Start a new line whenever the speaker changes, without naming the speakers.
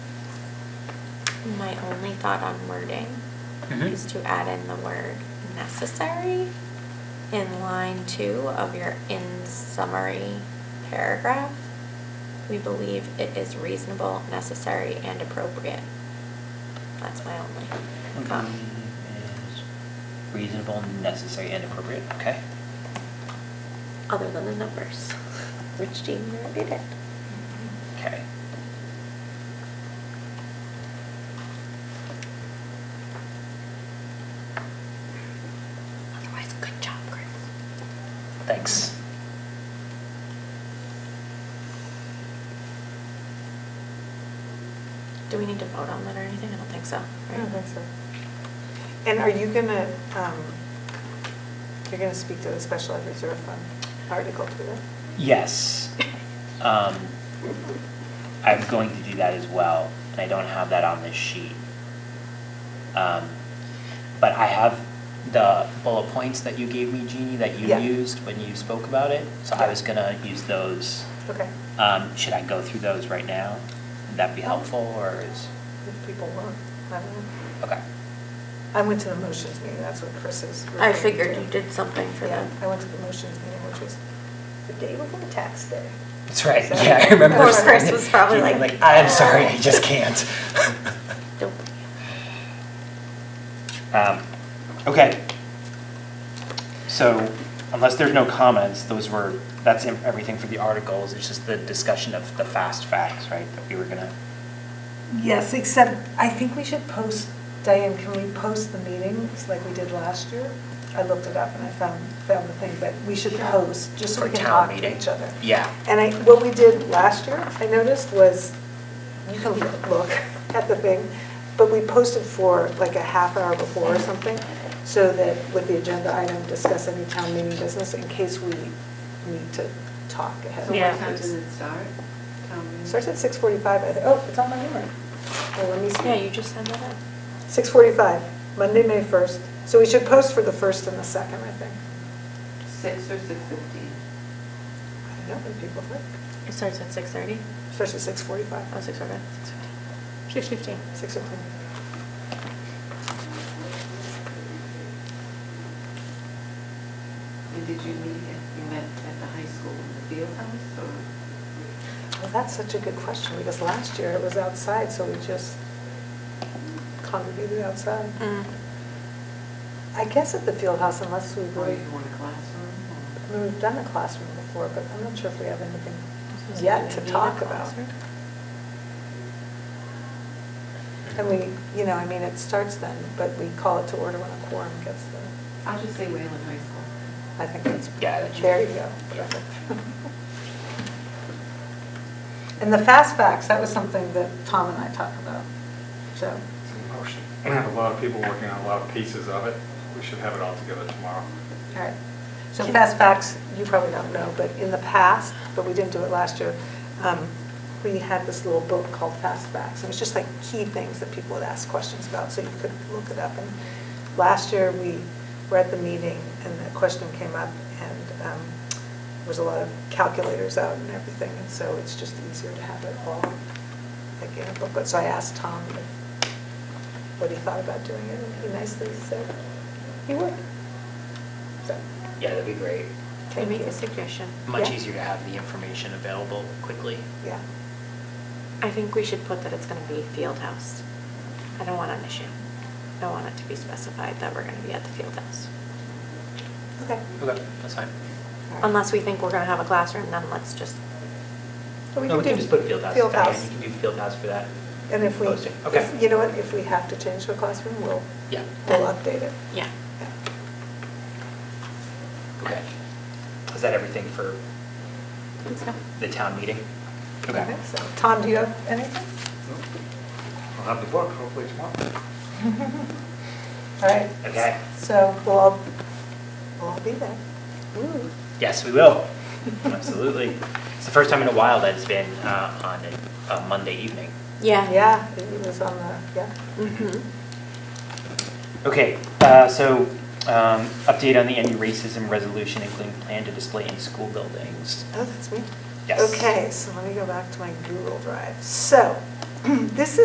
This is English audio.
My only thought on wording
Mhm.
is to add in the word necessary in line two of your in summary paragraph. We believe it is reasonable, necessary, and appropriate. That's my only
Believe
comment.
Um, is Reasonable, necessary, and appropriate, okay?
Other than the numbers, which Jean already did.
Okay.
Otherwise, good job, Chris.
Thanks.
Do we need to vote on that or anything? I don't think so.
I
right?
don't think so. And are you gonna, um, you're gonna speak to the special ed reserve fund article too?
Yes. Um, I'm going to do that as well, and I don't have that on this sheet. Um, but I have the bullet points that you gave me, Jeannie, that you
Yeah.
used when you spoke about it. So I was gonna use those.
Okay,
Um, should I go through those right now? Would that be helpful, or is,
if people want, I don't know.
okay,
I went to the motions meeting, that's what Chris is.
I
referring
figured
to.
you did something for
Yeah,
them.
I went to the motions meeting, which was the day before tax day.
that's right,
So-
yeah, I remember.
Poor Chris
saying-
was probably
Jeannie,
like,
I'm sorry, I just can't.
Don't-
Um, Okay. So unless there's no comments, those were, that's em- everything for the articles. It's just the discussion of the fast facts, right, that we were gonna,
Yes, except I think we should post, Diane, can we post the meetings like we did last year? I looked it up and I found, found the thing, but we should post, just so
for
we can
town
talk
meeting.
to each other.
Yeah.
And I, what we did last year, I noticed, was, you can look at the thing, but we posted for like a half hour before or something, so that with the agenda item, discuss any town meeting business in case we need to talk ahead.
So
of
what
Yeah.
time
time.
does it start? Tell me.
Starts at 6:45, I thi- oh, it's on my memory. Well, let me see.
Yeah, you just said that.
6:45, Monday, May 1st. So we should post for the 1st and the 2nd, I think.
Six or six fifteen?
I don't know what people think.
It starts at six thirty?
Starts at 6:45.
Oh, six forty-five. Six fifteen.
Six o'clock.
And did you meet, at you met at the high school in the field house or?
Well, that's such a good question, because last year it was outside, so we just congregated outside.
Mm.
I guess at the field house, unless we
Or
really,
you want a classroom or?
I mean, we've done a classroom before, but I'm not sure if we have anything yet to talk about. And we, you know, I mean, it starts then, but we call it to order when a quorum gets there.
I'll just say Wayland High School.
I think that's,
Yeah, that should-
there you go. perfect. And the fast facts, that was something that Tom and I talked about, so.
It's in motion. We have a lot of people working on a lot of pieces of it. We should have it all together tomorrow.
All right. So fast facts, you probably don't know, but in the past, but we didn't do it last year, um, we had this little book called Fast Facts. It was just like key things that people would ask questions about, so you could look it up. And last year, we were at the meeting, and the question came up, and um, there was a lot of calculators out and everything, and so it's just easier to have it all like in a book. But So I asked Tom what he thought about doing it, and he nicely said he would. So,
yeah, that'd be great.
I
thank
make
you.
a suggestion?
Much
Yeah.
easier to have the information available quickly.
Yeah.
I think we should put that it's gonna be field house. I don't want an issue. I want it to be specified that we're gonna be at the field house.
Okay.
Okay. That's fine.
Unless we think we're gonna have a classroom, then let's just,
No, we can just put field house.
Field
Diane,
house.
You can do field house for that.
And if we,
Posting, okay.
if- you know what, if we have to change the classroom, we'll,
Yeah,
we'll update it.
yeah.
Yeah.
okay. Is that everything for
Let's go.
the town meeting?
I think so. Tom, do you have anything?
I'll have the book hopefully tomorrow.
All right.
Okay.
So we'll, all we'll all be there. Ooh.
Yes, we will. Absolutely. It's the first time in a while that it's been uh, on a- a Monday evening.
Yeah.
Yeah, it was on the, yeah.
Mhm.
Okay, uh, so um, update on the anti-racism resolution, including plan to display in school buildings.
Oh, that's me?
Yes.
Okay, so let me go back to my Google Drive. So, this is.